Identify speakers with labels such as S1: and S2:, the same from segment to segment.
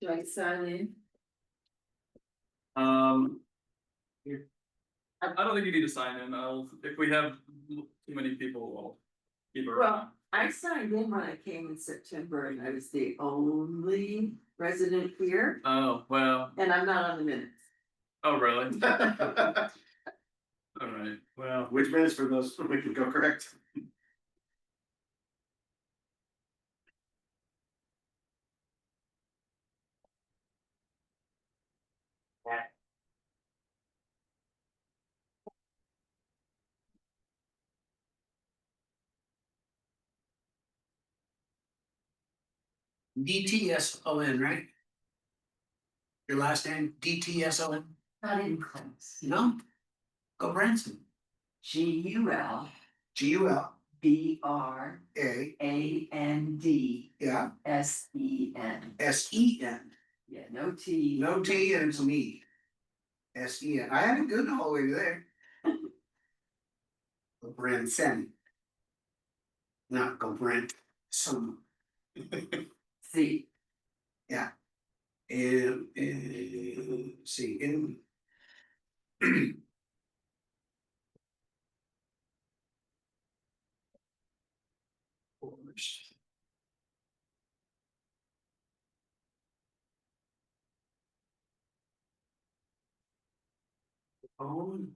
S1: Do I sign in?
S2: Um. here. I I don't think you need to sign in, I'll, if we have too many people, we'll keep it around.
S1: I signed in when I came in September and I was the only resident here
S2: Oh, well,
S1: and I'm not on the minutes.
S2: oh, really? Alright,
S3: Well, which minutes for those, we can go correct.
S4: D T S O N, right? Your last name, D T S O N,
S1: Not in class.
S4: no? Go Branson,
S1: G U L
S4: G U L
S1: B R
S4: A,
S1: A N D
S4: yeah,
S1: S E N.
S4: S E N,
S1: Yeah, no T.
S4: no T and it's an E. S E N, I had it good the whole way there. Go Branson. Not go Brent, some,
S1: C.
S4: and, and, see, and. Own,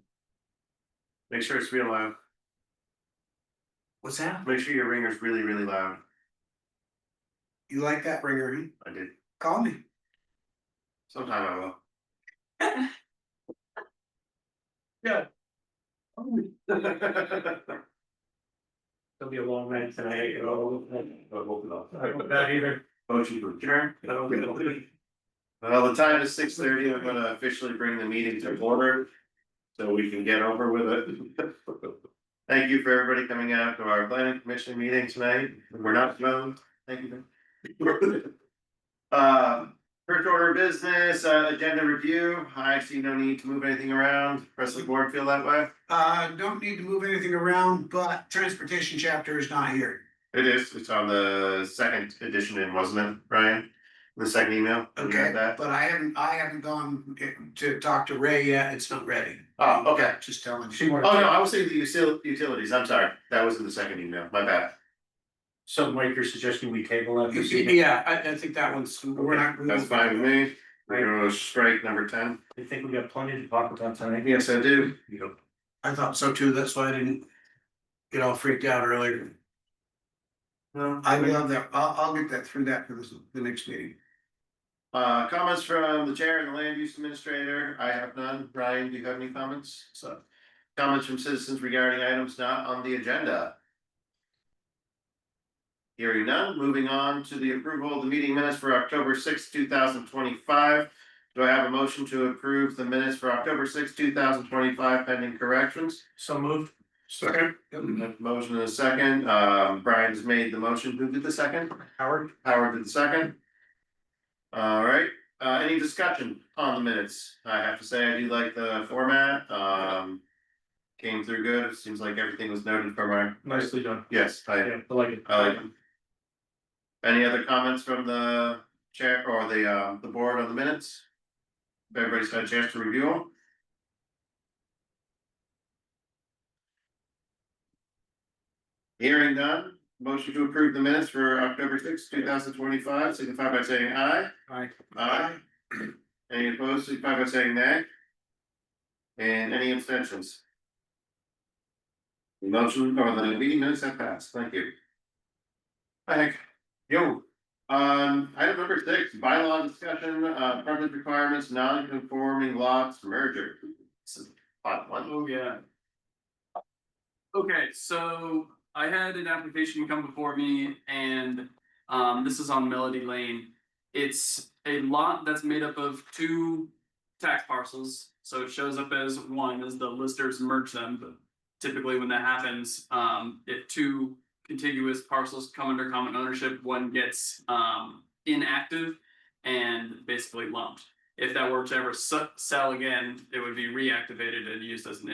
S3: Make sure it's real loud.
S4: what's that?
S3: Make sure your ringer's really, really loud.
S4: You like that ringer, huh?
S3: I did.
S4: Call me.
S3: Sometime I will. It'll be a long night tonight. Not either. Motion to adjourn. Well, the time is six thirty. I'm gonna officially bring the meeting to order. So we can get over with it. Thank you for everybody coming out to our planning commission meeting tonight. We're not alone. Thank you. Uh, First order of business, uh, agenda review. I see no need to move anything around. Presley Board feel that way?
S4: Uh, don't need to move anything around, but transportation chapter is not here.
S3: It is, it's on the second edition in, wasn't it, Brian? The second email? You got
S4: Okay,
S3: That,
S4: but I haven't, I haven't gone to talk to Ray yet. It's not ready.
S3: oh, okay.
S4: Just telling.
S5: She
S3: Oh,
S5: wanted
S3: no, I was thinking the util- utilities, I'm sorry. That was in the second email, my bad.
S5: So Mike, you're suggesting we table that this evening?
S4: Yeah, I, I think that one's, we're not.
S3: That's fine with me. We're gonna strike number ten.
S5: I think we got plenty to talk about tonight.
S3: Yes, I do.
S4: I thought so too. That's why I didn't get all freaked out earlier.
S3: No,
S4: I will have that. I'll, I'll get that through that for this, the next meeting.
S3: Uh, comments from the chair and the land use administrator, I have none, Brian, do you have any comments? So, comments from citizens regarding items not on the agenda? Hearing none, moving on to the approval of the meeting minutes for October sixth, two thousand twenty-five. Do I have a motion to approve the minutes for October sixth, two thousand twenty-five pending corrections?
S5: So moved.
S3: Second. Motion and a second, um, Brian's made the motion, who did the second?
S5: Howard?
S3: Howard did the second. All right, uh, any discussion on the minutes? I have to say, I do like the format, um. Came through good, it seems like everything was noted from our,
S5: Nicely done.
S3: yes, I,
S5: Yeah, I like it.
S3: I like them. Any other comments from the chair or the, uh, the board on the minutes? Everybody's had a chance to review them? Hearing done, motion to approve the minutes for October sixth, two thousand twenty-five, signify by saying aye.
S5: Aye.
S3: Aye. Any opposed, signify by saying nay. And any abstentions? The Motion or the meeting minutes have passed, thank you. Thank you. Um, item number six, bylaw discussion, uh, permit requirements, non-conforming lots merger. This is odd one.
S2: oh, yeah. Okay, so I had an application come before me and um this is on Melody Lane. It's a lot that's made up of two tax parcels, so it shows up as one as the listers merge them, but. Typically, when that happens, um if two contiguous parcels come under common ownership, one gets um inactive. And basically lumped. If that were to ever su- sell again, it would be reactivated and used as an